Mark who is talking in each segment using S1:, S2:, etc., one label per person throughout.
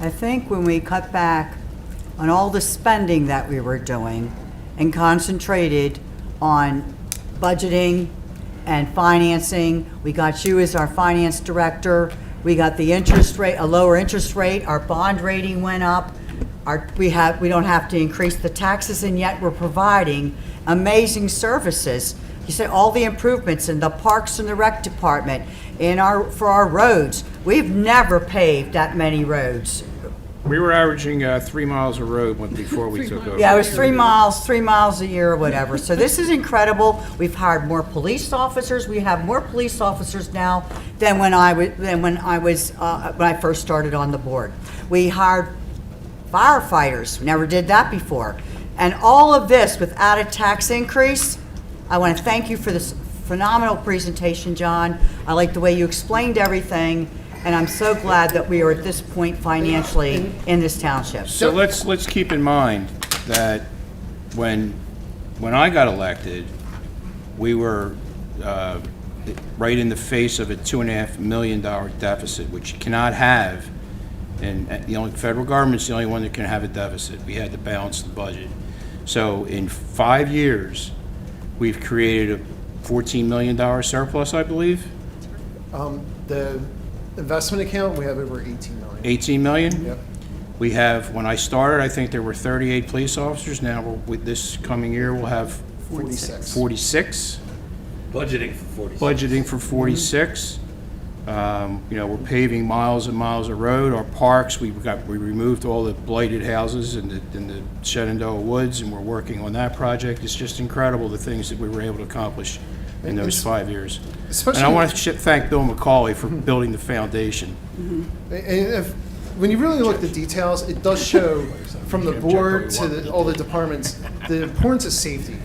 S1: I think when we cut back on all the spending that we were doing and concentrated on budgeting and financing, we got you as our finance director, we got the interest rate, a lower interest rate, our bond rating went up, our, we have, we don't have to increase the taxes, and yet we're providing amazing services. You said all the improvements in the parks and the rec department, in our, for our roads. We've never paved that many roads.
S2: We were averaging uh, three miles a road when, before we took over.
S1: Yeah, it was three miles, three miles a year or whatever. So this is incredible. We've hired more police officers. We have more police officers now than when I was, than when I was, uh, when I first started on the board. We hired firefighters. Never did that before. And all of this without a tax increase, I want to thank you for this phenomenal presentation, John. I like the way you explained everything, and I'm so glad that we are at this point financially in this township.
S2: So let's, let's keep in mind that when, when I got elected, we were uh, right in the face of a two and a half million dollar deficit, which you cannot have. And uh, the only, federal government's the only one that can have a deficit. We had to balance the budget. So in five years, we've created a $14 million surplus, I believe,
S3: Um, the investment account, we have over 18 million.
S2: 18 million?
S3: Yep.
S2: We have, when I started, I think there were 38 police officers. Now, we'll- with this coming year, we'll have
S3: 46.
S2: 46,
S4: Budgeting for 46.
S2: budgeting for 46. Um, You know, we're paving miles and miles of road. Our parks, we got, we removed all the blighted houses in the, in the Shenandoah Woods, and we're working on that project. It's just incredible, the things that we were able to accomplish in those
S3: it's-
S2: five years. And I
S3: especially-
S2: want to thank Bill McCauley for building the foundation.
S3: And if, when you really look at the details, it does show from the board to the- all the departments, the importance of safety.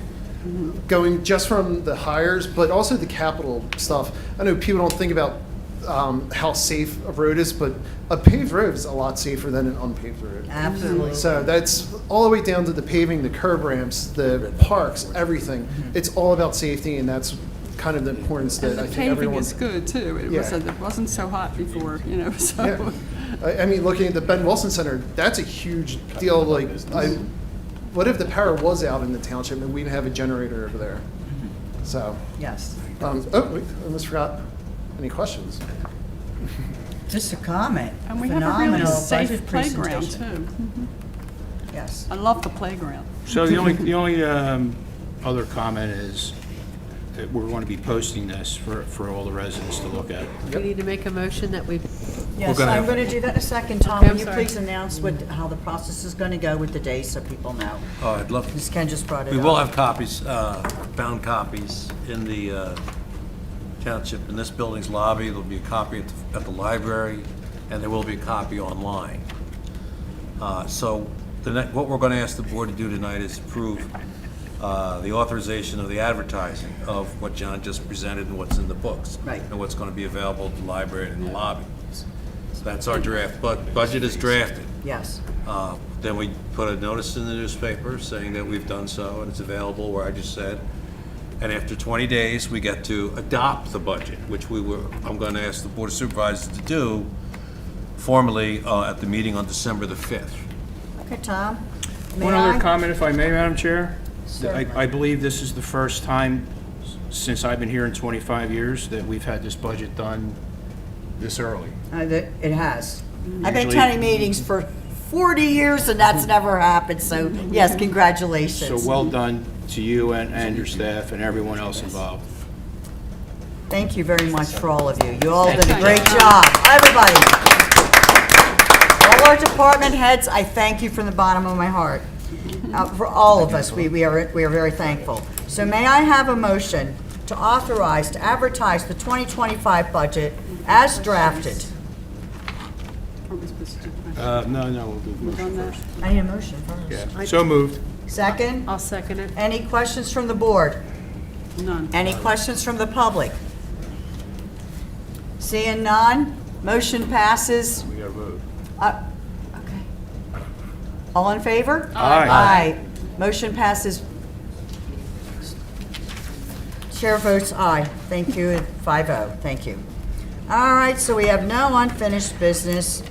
S3: Going just from the hires, but also the capital stuff. I know people don't think about um, how safe a road is, but a paved road is a lot safer than an unpaved road.
S1: Absolutely.
S3: So that's all the way down to the paving, the curb ramps, the parks, everything. It's all about safety, and that's kind of the importance that
S5: And the
S3: I think
S5: paving
S3: everyone.
S5: is good too. It
S3: Yeah.
S5: wasn't, it wasn't so hot before, you know,
S3: Yeah,
S5: so.
S3: I, I mean, looking at the Ben Wilson Center, that's a huge deal, like, I, what if the power was out in the township and we didn't have a generator over there? So,
S1: Yes.
S3: um, oh, wait, I almost forgot, any questions?
S1: Just a comment.
S5: And we have a really
S1: Phenomenal
S5: safe
S1: budget
S5: playground
S1: presentation.
S5: too.
S1: Yes.
S5: I love the playground.
S2: So the only, the only um, other comment is that we're going to be posting this for, for all the residents to look at.
S6: We need to make a motion that we,
S1: Yes,
S2: gonna
S1: I'm
S2: have-
S1: going to do that in a second. Tom,
S6: Okay,
S1: will
S6: I'm
S1: you
S6: sorry.
S1: please announce what, how the process is going to go with the days so people know?
S4: Oh, I'd love to.
S1: Ms. Ken just brought it
S4: We
S1: up.
S4: will have copies, uh, bound copies in the uh, township, in this building's lobby. There'll be a copy at the- at the library, and there will be a copy online. Uh, So the ne- what we're going to ask the board to do tonight is approve uh, the authorization of the advertising of what John just presented and what's in the books.
S1: Right.
S4: And what's going to be available at the library and in the lobby. So that's our draft, but budget is drafted.
S1: Yes.
S4: Uh, Then we put a notice in the newspaper saying that we've done so, and it's available where I just said. And after 20 days, we get to adopt the budget, which we were, I'm going to ask the Board of Supervisors to do formally uh, at the meeting on December the 5th.
S1: Okay, Tom? may
S2: One other
S1: I?
S2: comment, if I may, Madam Chair? I,
S1: Certainly.
S2: I believe this is the first time s- since I've been here in 25 years that we've had this budget done this early.
S1: Uh, that- It has. I've been
S2: Usually-
S1: attending meetings for 40 years and that's never happened, so yes,
S2: So
S1: congratulations.
S2: well done to you and, and your staff and everyone else involved.
S1: Thank you very much for all of you. You all did a
S5: Thank you.
S1: great job, everybody. All our department heads, I thank you from the bottom of my heart. Uh, For all of us, we, we are, we are very thankful. So may I have a motion to authorize, to advertise the 2025 budget as drafted?
S5: Aren't we supposed to do that?
S2: Uh, no, no, we'll do the motion
S5: Done that?
S2: first.
S1: I need a motion first.
S2: Yeah. So moved.
S1: Second,
S6: I'll second it.
S1: any questions from the board?
S5: None.
S1: Any questions from the public? Seeing none, motion passes.
S2: We got to vote.
S1: Uh, Okay. All in favor?
S2: Aye.
S1: Aye. Motion passes. Chair votes aye. oh. Thank you, 5-0. Thank you. All right, so we have no unfinished business.